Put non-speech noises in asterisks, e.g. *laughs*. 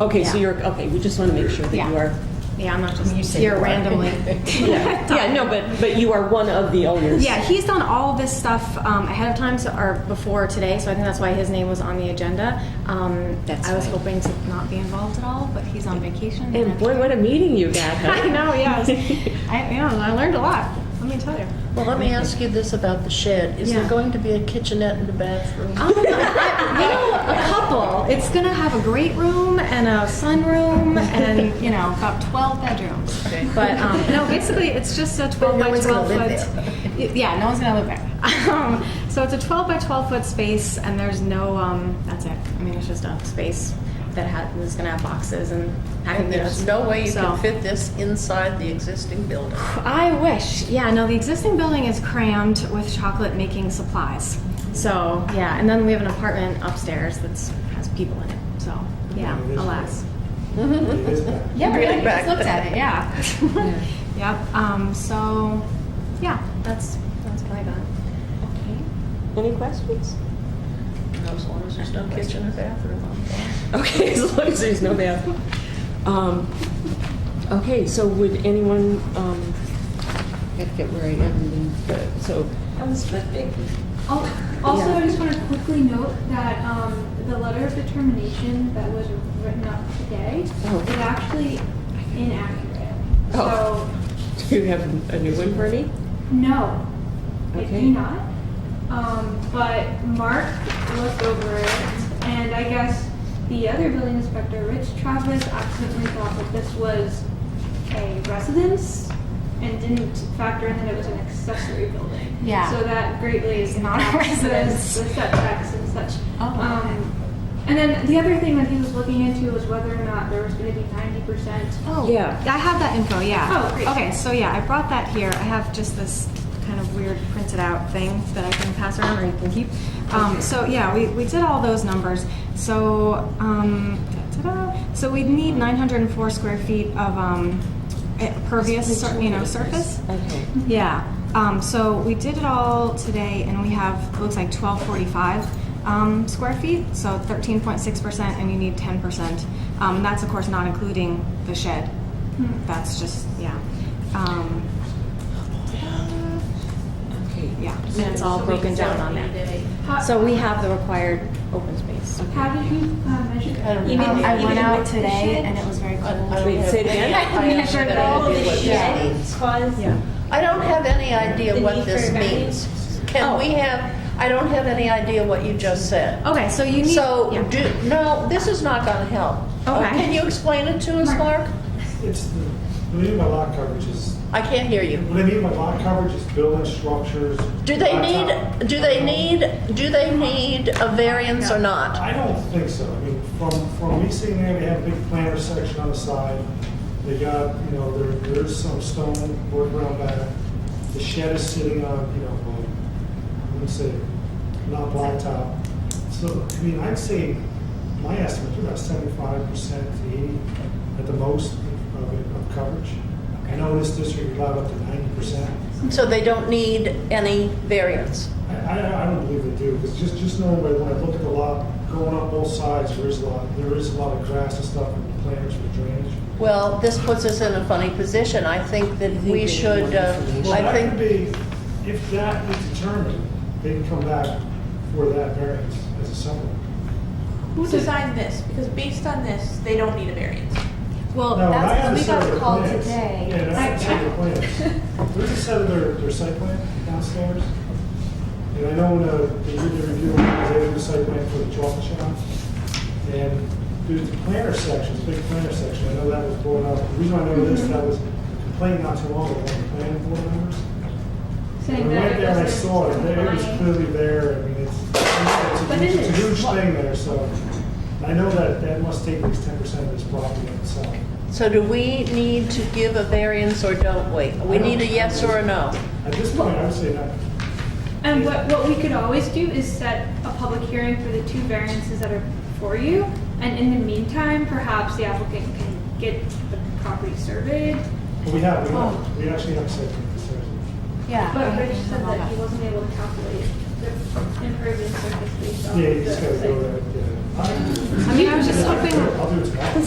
Okay, so Yeah. you're, okay, we just want to make sure that Yeah. you are, Yeah, I'm not just You say here you are. *laughs* randomly. *laughs* yeah, yeah, no, but, but you are one of the owners. Yeah, he's done all of this stuff um, ahead of time, so, or before today, so I think that's why his name was on the agenda. Um, That's I was right. hoping to not be involved at all, but he's on vacation. And boy, what a meeting you got, huh? *laughs* I know, *laughs* yes. I, you know, I learned a lot, let me tell you. Well, let me ask you this about the shed. Is there Yeah. going to be a kitchenette and a bathroom? Um, I- you know, a couple. It's gonna have a great room and a sunroom and, you know, about 12 bedrooms. Okay. *laughs* But, um, no, basically, it's just a 12 no by one's gonna 12 live foot. Y- Yeah, no one's gonna live there. *laughs* Um, So it's a 12 by 12 foot space and there's no, um, that's it. I mean, it's just a space that had, was gonna have boxes and packing And units. there's no way you So- can fit this inside the existing building. I wish. Yeah, no, the existing building is crammed with chocolate making supplies. So, yeah, and then we have an apartment upstairs that's has people in it. So, yeah, Yeah, it is alas. It is back. Yeah, Really really, I just back. looked at it, yeah. Yep, um, so, yeah, that's, that's what I got. Any questions? As long as there's no kitchen and bathroom. I'm fine. Okay, *laughs* as long as there's no bathroom. Um, okay, so would anyone, um, Gotta get where I am, and, so, Al- Oh, Also, Yeah. I just want to quickly note that um, the letter of determination that was written up today Oh. is actually inaccurate. Oh. do you have a new one for me? So, no, it Okay. do not. Um, But Mark looked over it, and I guess the other building inspector, Rich Travis, accidentally thought that this was a residence and didn't factor in that it was an accessory building. Yeah. So that greatly It's not a impacts the- residence. The setbacks and such. Oh, okay. Um, And then the other thing that he was looking into was whether or not there was gonna be ninety percent. Oh, Yeah. I have that info, yeah. Oh, great. Okay, so yeah, I brought that here. I have just this kind of weird printed out thing that I can pass around or you can keep. Um, so yeah, we, we did all those numbers. So, um, da-da-da. so we'd need nine hundred and four square feet of, um, eh, pervious, sur- you know, surface. Okay. Yeah, um, so we did it all today and we have, it looks like twelve forty-five, um, square feet, so thirteen point six percent and you need ten percent. Um, and that's of course not including the shed. That's just, yeah. Um, Okay. yeah, and it's all broken down on that. How- So we have the required open space. How did you uh, measure that? I don't know. Um, I I- went out today and it was very I cold. don't Wait, have say it any again? idea I measured what all that the is. shed. Yeah. I don't have any idea what this means. Can Oh. we have, I don't have any idea what you just said. Okay, so you need. So, yeah. do, no, this is not gonna help. Uh, Okay. Can you explain it to us, Mark? It's, the- what I mean by lot coverage is, I can't hear you. what I mean by lot coverage is building structures. Do they on top. need, do they need, do they need a variance or not? I don't think so. I mean, from, from me seeing there, they have a big planter section on the side. They got, you know, there, there's some stone work around back. The shed is sitting on, you know, um, let me say, not blacktop. So, I mean, I'd say, my estimate, about seventy-five percent to eighty at the most of, it- of coverage. I know this district allowed up to ninety percent. So they don't need any variance? I, I, I don't believe they do, because just, just knowing by when I look at the lot, going up both sides, there is a lot, there is a lot of grass and stuff and planters for drainage. Well, this puts us in a funny position. I think that we should, uh, Well, I that could think, be, if that is determined, they can come back for that variance as a separate. Who designed this? Because based on this, they don't need a variance. Well, Now, when I that's, had a we set of got their called plans- today. Yeah, and I had a set of their *laughs* plans. There's a set of their, their site plan downstairs. And I know when, uh, they did the review, they did the site plan for the chocolate shop. And there's the planner section, big planner section, I know that was brought up. The reason I know Mm-hmm. this, that was complained not too long ago, by the planning board members. Saying I that went it there and I wasn't saw it, there it was compliant. clearly there, I mean, it's, it's a But huge, it it's a is. huge thing there, so. I know that, that must take at least ten percent of this property itself. so do we need to give a variance or don't we? We need a yes or a no. At this point, I would say not. And what, what we could always do is set a public hearing for the two variances that are before you, and in the meantime, perhaps the applicant can get the property surveyed. But we have, we Oh. have, we actually have site plan concerns. Yeah. But Rich said that he wasn't able to calculate the impervious surface based on Yeah, the you just gotta go site. there, yeah. I mean, I was just hoping. I'll do it tomorrow.